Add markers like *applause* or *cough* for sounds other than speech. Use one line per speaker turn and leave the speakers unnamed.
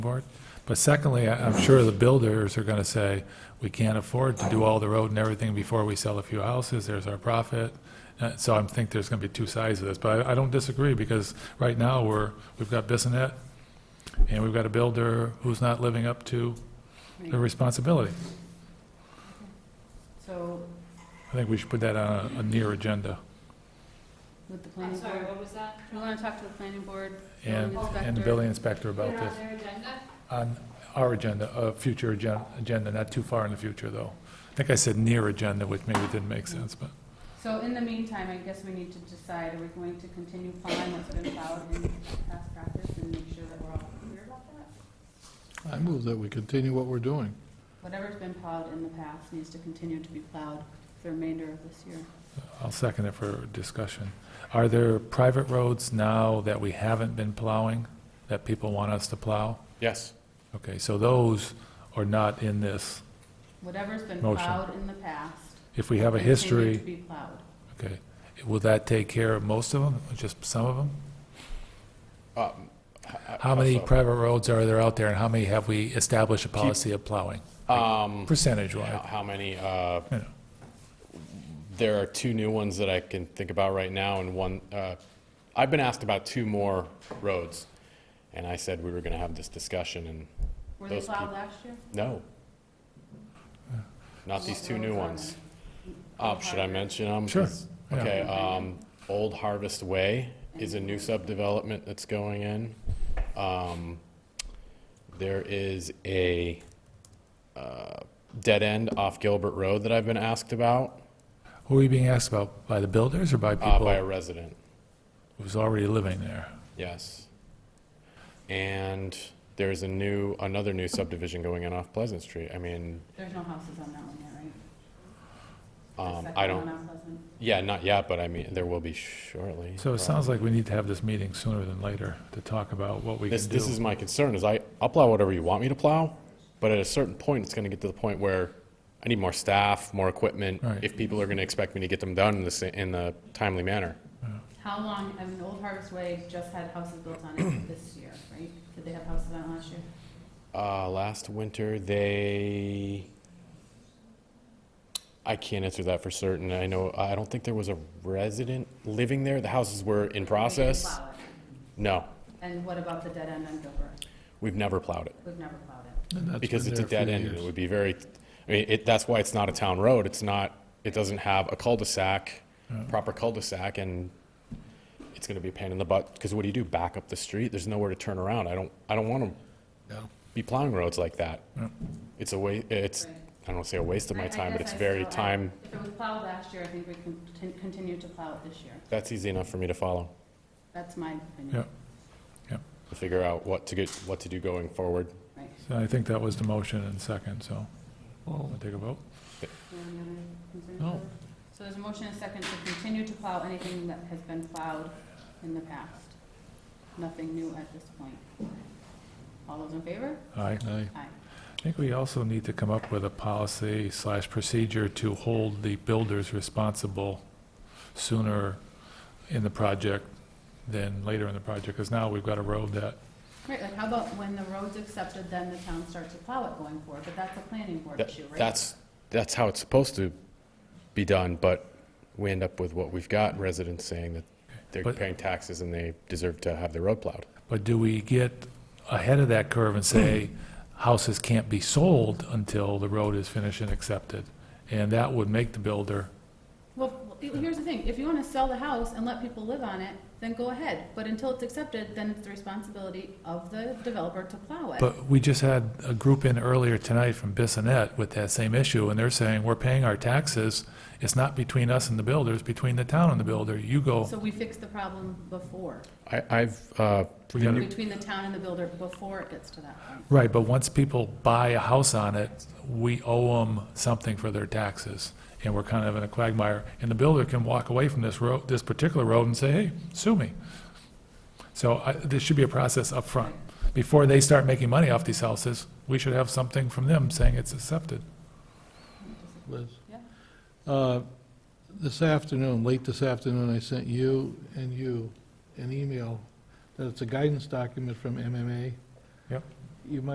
board. But secondly, I- I'm sure the builders are gonna say, we can't afford to do all the road and everything before we sell a few houses, there's our profit. Uh, So I think there's gonna be two sides to this, but I I don't disagree, because right now, we're, we've got Bissonnet, and we've got a builder who's not living up to their responsibility.
So
I think we should put that on a- a near agenda,
with the
I'm
planning
sorry,
board,
what was that?
we want to talk to the planning board,
and, and
building
the
inspector.
building inspector
Put
about
it
this.
on their agenda?
On our agenda, a future agen- agenda, not too far in the future, though. I think I said near agenda, which maybe didn't make sense, but.
So in the meantime, I guess we need to decide, are we going to continue following what's been followed in past practice and make sure that we're all clear about that?
I move that we continue what we're doing.
Whatever's been plowed in the past needs to continue to be plowed the remainder of this year.
I'll second it for discussion. Are there private roads now that we haven't been plowing, that people want us to plow?
Yes.
Okay, so those are not in this.
Whatever's been
Motion.
plowed in the past.
If we have a
continue
history,
to be plowed.
okay, will that take care of most of them, or just some of them?
Um, h- h-
How many
so,
private roads are there out there, and how many have we established a policy of plowing,
Um,
percentage-wise?
how how many, uh,
You know,
there are two new ones that I can think about right now and one, uh, I've been asked about two more roads. And I said we were gonna have this discussion and
Were they
Those
plowed
peop-
last year?
no. Not these two new ones. Uh, should I mention them?
Sure, yeah.
Okay, um, Old Harvest Way is a new subdevelopment that's going in. Um, there is a, uh, dead end off Gilbert Road that I've been asked about,
Who are you being asked about, by the builders or by
uh, by a
people
resident,
who's already living there?
yes. And there's a new, another new subdivision going in off Pleasant Street. I mean,
There's no houses on that one yet, right? The
um, I
second one
don't,
on Pleasant.
yeah, not yet, but I mean, there will be shortly.
So it sounds like we need to have this meeting sooner than later to talk about what we can
This,
do.
this is my concern, is I, I'll plow whatever you want me to plow, but at a certain point, it's gonna get to the point where I need more staff, more equipment,
Right.
if people are gonna expect me to get them done in the, sa- in the timely manner.
How long, I mean, Old Harvest Way just had houses built on it
*clears throat*
this year, right? Did they have houses on it last year?
Uh, last winter, they, I can't answer that for certain, I know, I don't think there was a resident living there, the houses were in process.
They didn't plow
No,
it. And what about the dead end on Gilbert?
we've never plowed it.
We've never plowed it.
and that's
Because
been
it's a
there
dead
for
end, and it
years.
would be very, I mean, it, that's why it's not a town road, it's not, it doesn't have a cul-de-sac, proper cul-de-sac, and it's gonna be a pain in the butt, because what do you do, back up the street? There's nowhere to turn around, I don't, I don't wanna
No.
be plowing roads like that.
Yeah.
It's a wa, it's,
Right.
I don't wanna say a waste of
I-
my
I
time, but
guess
it's
I
very
still- I-
time,
If it was plowed last year, I think we can contin- continue to plow it this year.
that's easy enough for me to follow,
That's my opinion.
Yeah.
to figure out what to get, what to do going forward.
Right.
So I think that was the motion and second, so we'll take a vote.
Do you have any other concerns?
No.
Bill? So there's a motion and a second to continue to plow anything that has been plowed in the past. Nothing new at this point. All those in favor?
Aye.
Aye.
Aye.
I think we also need to come up with a policy slash procedure to hold the builders responsible sooner in the project than later in the project, because now we've got a road that,
Right, like how about when the road's accepted, then the town starts to plow it going forward, but that's a planning board
That-
issue, right?
That's, that's how it's supposed to be done, but we end up with what we've got, residents saying that they're
But-
paying taxes and they deserve to have their road plowed.
but do we get ahead of that curve and say, houses can't be sold until the road is finished and accepted? And that would make the builder,
Well, here's the thing, if you wanna sell the house and let people live on it, then go ahead, but until it's accepted, then it's the responsibility of the developer to plow it.
But we just had a group in earlier tonight from Bissonnet with that same issue, and they're saying, we're paying our taxes. It's not between us and the builder, it's between the town and the builder. You go,
So we fixed the problem before,
I, I've, uh,
We gotta-
between the town and the builder, before it gets to that point.
right, but once people buy a house on it, we owe them something for their taxes. And we're kind of in a quagmire, and the builder can walk away from this road, this particular road and say, hey, sue me. So I, this should be a process up front Before they start making money off these houses, we should have something from them saying it's accepted.
Liz.
Yeah.
Uh, This afternoon, late this afternoon, I sent you and you an email that it's a guidance document from MMA.
Yep.
you might